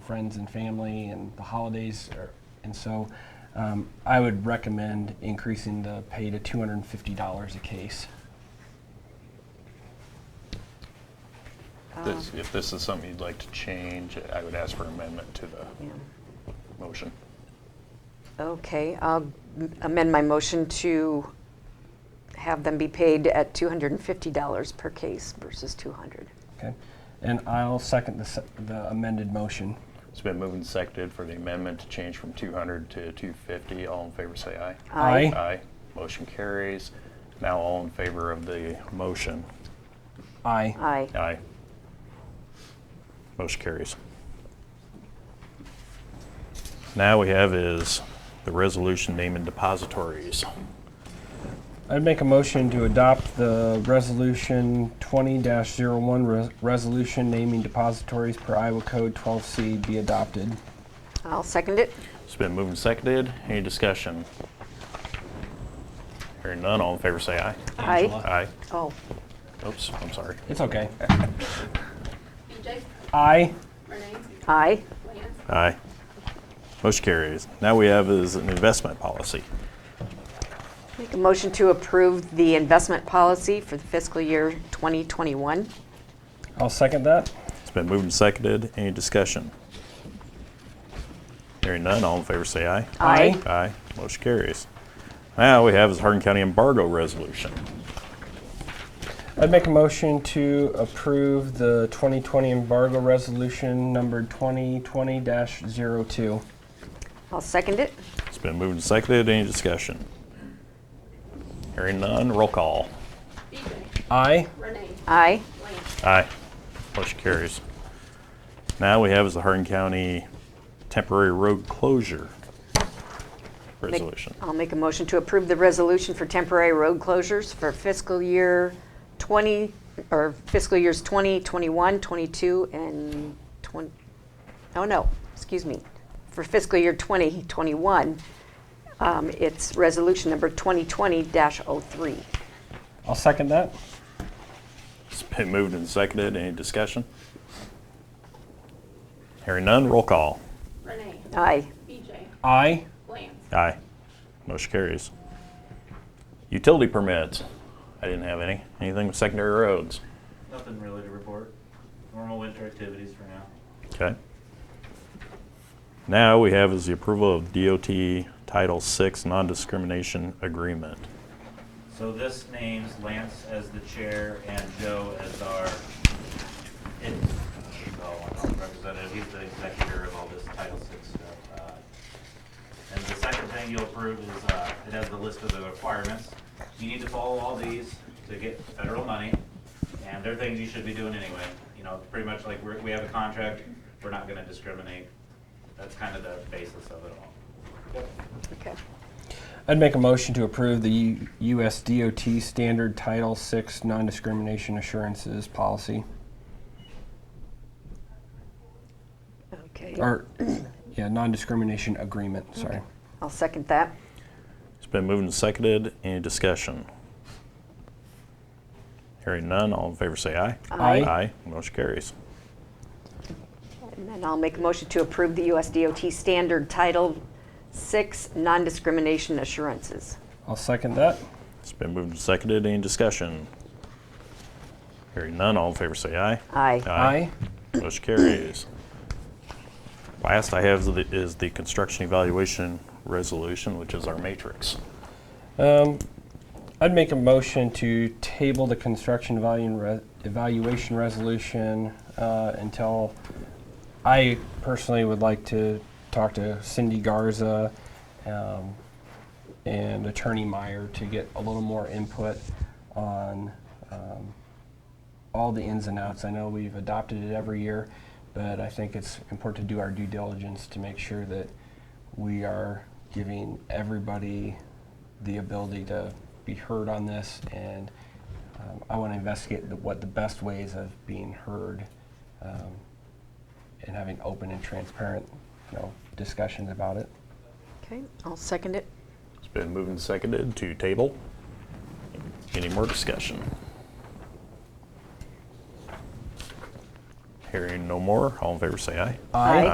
friends and family and the holidays. Are, and so um, I would recommend increasing the pay to $250 a case. This- If this is something you'd like to change, I would ask for amendment to the Yeah. motion. Okay, I'll m- amend my motion to have them be paid at $250 per case versus 200. Okay? And I'll second the, se- the amended motion. It's been moved and seconded for the amendment to change from 200 to 250. All in favor, say aye. Aye. Aye. Aye. Motion carries. Now all in favor of the motion. Aye. Aye. Aye. Motion carries. Now we have is the resolution naming depositories. I'd make a motion to adopt the resolution 20-01, res- resolution naming depositories per Iowa Code 12C be adopted. I'll second it. It's been moved and seconded. Any discussion? Hearing none, all in favor say aye. Aye. Aye. Oh, Oops, I'm sorry. It's okay. BJ, Aye. Renee, aye. Lance, Aye. Motion carries. Now we have is an investment policy. Make a motion to approve the investment policy for the fiscal year 2021. I'll second that. It's been moved and seconded. Any discussion? Hearing none, all in favor say aye. Aye. Aye. Motion carries. Now we have is Hardin County embargo resolution. I'd make a motion to approve the 2020 embargo resolution numbered 2020-02. I'll second it. It's been moved and seconded. Any discussion? Hearing none, roll call. BJ, Aye. Renee, Aye. Lance, Aye. Motion carries. Now we have is the Hardin County temporary road closure Make- resolution. I'll make a motion to approve the resolution for temporary road closures for fiscal year 20, or fiscal years 20, 21, 22, and 20, oh no, excuse me, for fiscal year 20, 21, um, it's resolution number 2020-03. I'll second that. It's been moved and seconded. Any discussion? Hearing none, roll call. Renee, Aye. BJ, Aye. Lance, Aye. Motion carries. Utility permits. I didn't have any. Anything with secondary roads? Nothing really to report. Normal winter activities for now. Okay. Now we have is the approval of DOT Title VI non-discrimination agreement. So this names Lance as the chair and Joe as our in- oh, I don't representative. He's the executor of all this Title VI stuff. Uh, And the second thing you'll approve is, uh, it has the list of the requirements. You need to follow all these to get federal money, and they're things you should be doing anyway. You know, pretty much like, we're- we have a contract, we're not gonna discriminate. That's kind of the basis of it all. Okay. I'd make a motion to approve the U- U.S. DOT Standard Title VI Non-Discrimination Assurances Policy. Okay. Or, yeah, non-discrimination agreement, sorry. I'll second that. It's been moved and seconded. Any discussion? Hearing none, all in favor say aye. Aye. Aye. Motion carries. And then I'll make a motion to approve the USDOT standard Title 6 non-discrimination assurances. I'll second that. It's been moved and seconded. Any discussion? Hearing none, all in favor say aye. Aye. Motion carries. Last I have is the- is the construction evaluation resolution, which is our matrix. Um, I'd make a motion to table the construction evaluation, re- evaluation resolution uh, until I personally would like to talk to Cindy Garza um, and Attorney Meyer to get a little more input on um, all the ins and outs. I know we've adopted it every year, but I think it's important to do our due diligence to make sure that we are giving everybody the ability to be heard on this, and um, I want to investigate the, what the best ways of being heard um, and having open and transparent, you know, discussions about it. Okay, I'll second it. It's been moved and seconded to table. Any more discussion? Hearing no more, all in favor say aye. Aye.